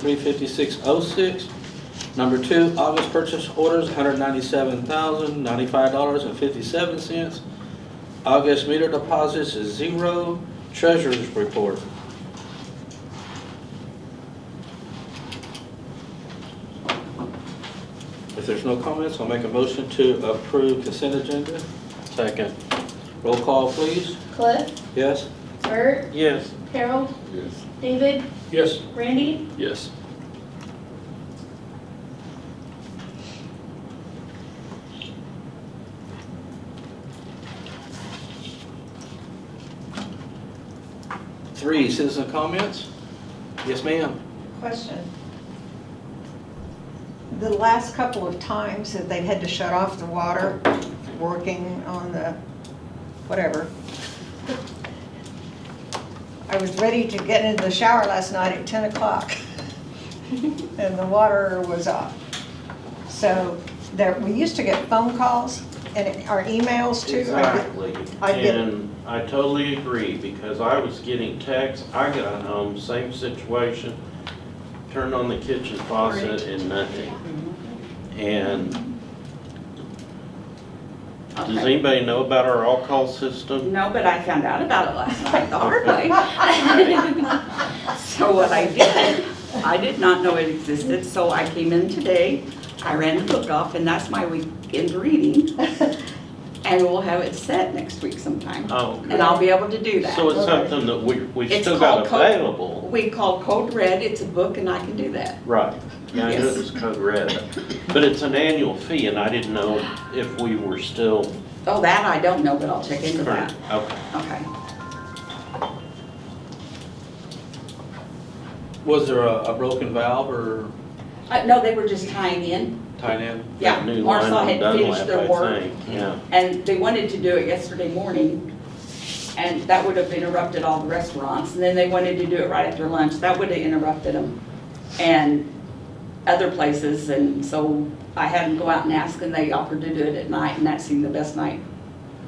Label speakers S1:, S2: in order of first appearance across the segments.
S1: 35606. Number two, August purchase orders, $197,095.57. August meter deposits is zero. Treasurer's report. If there's no comments, I'll make a motion to approve consent agenda. Second. Roll call, please.
S2: Cliff,
S1: Yes?
S2: Bert,
S1: Yes.
S2: Harold,
S3: Yes.
S2: David,
S4: Yes.
S2: Randy,
S4: Yes.
S1: Three, citizen comments? Yes, ma'am.
S5: Question. The last couple of times that they've had to shut off the water, working on the, whatever. I was ready to get into the shower last night at 10 o'clock, and the water was off. So there, we used to get phone calls and our emails too.
S6: Exactly.
S5: I get-
S6: And I totally agree, because I was getting texts, I got home, same situation, turned on the kitchen faucet and nothing. And does
S7: Okay.
S6: anybody know about our all-call system?
S7: No, but I found out about it last night the hard way. So what I did, I did not know it existed, so I came in today, I ran the book off, and that's my weekend reading. And we'll have it set next week sometime,
S6: Oh,
S7: and I'll be able to do
S6: so
S7: that.
S6: it's something that we, we
S7: It's
S6: still got
S7: called code-
S6: available.
S7: We call Code Red, it's a book, and I can do that.
S6: Right, yeah, I knew
S7: Yes.
S6: it was code red, but it's an annual fee, and I didn't know if we were still
S7: Oh, that I don't know, but I'll check into
S6: current.
S7: that.
S6: Okay.
S7: Okay.
S1: Was there a, a broken valve or
S7: Uh, no, they were just tying in,
S1: tying in?
S7: yeah.
S6: that new line
S7: Marsaw
S6: on
S7: had finished their
S6: Dunlap,
S7: work.
S6: I think, yeah.
S7: And they wanted to do it yesterday morning, and that would have interrupted all the restaurants. And then they wanted to do it right after lunch, that would have interrupted them. And other places, and so I had them go out and ask, and they offered to do it at night, and that seemed the best night,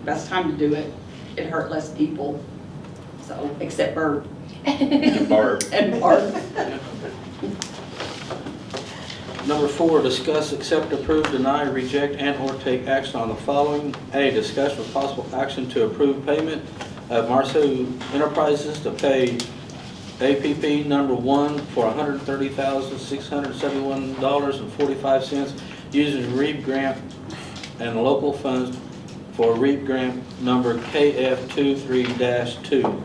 S7: best time to do it. It hurt less people, so, except Bird
S6: And Barb,
S7: and Park.
S1: Number four, discuss, accept, approve, deny, reject, and/or take action on the following. A, discuss with possible action to approve payment of Marso Enterprises to pay APP number one for $130,671.45 using REAP grant and local funds for REAP grant number KF23-2.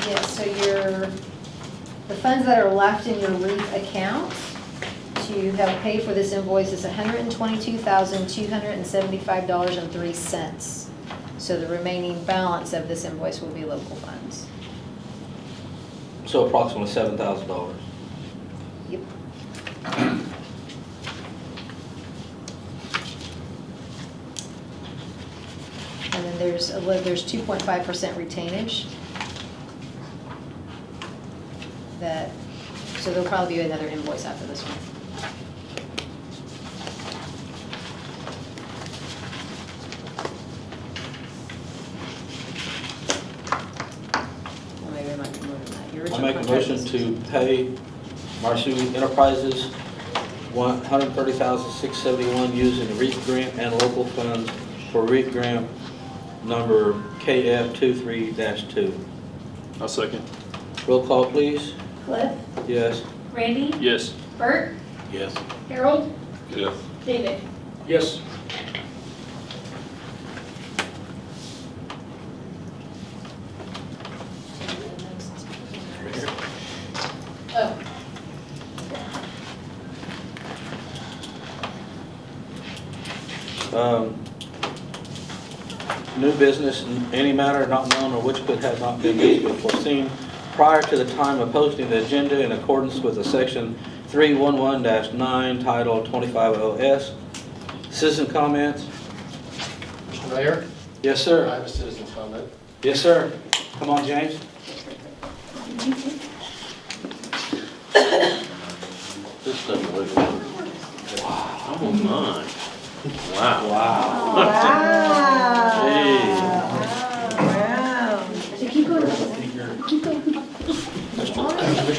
S2: yes, so your, the funds that are left in your LEAF account to help pay for this invoice is $122,275.03. So the remaining balance of this invoice will be local funds.
S1: So approximately $7,000.
S2: Yep. And then there's, a li- there's 2.5% retainage. That, so there'll probably be another invoice after this one. Or maybe I might be more than that. Your
S1: I
S2: original
S1: make a
S2: contract
S1: motion
S2: is-
S1: to pay Marsu Enterprises one hundred thirty thousand six seventy-one using the REAP grant and local funds for REAP grant number KF 23 two.
S4: I'll second.
S1: Roll call, please.
S2: Cliff,
S1: Yes.
S2: Randy,
S4: Yes.
S2: Bert,
S6: yes.
S2: Harold,
S3: Yes.
S2: David.
S4: Yes.
S2: Oh.
S1: Um, New business, in any matter not known or which could have not been reasonably foreseen prior to the time of posting the agenda in accordance with the section 311-9 Title 250S. Citizen comments?
S8: Mr. Mayor,
S1: Yes,
S8: I
S1: sir.
S8: have a citizen comment.
S1: Yes, sir. Come on, James.
S6: This doesn't look like. Oh my.
S1: Wow.
S6: Wow. Wow.
S5: Wow.
S2: So keep going. Keep going.
S6: Mr.
S1: Mr.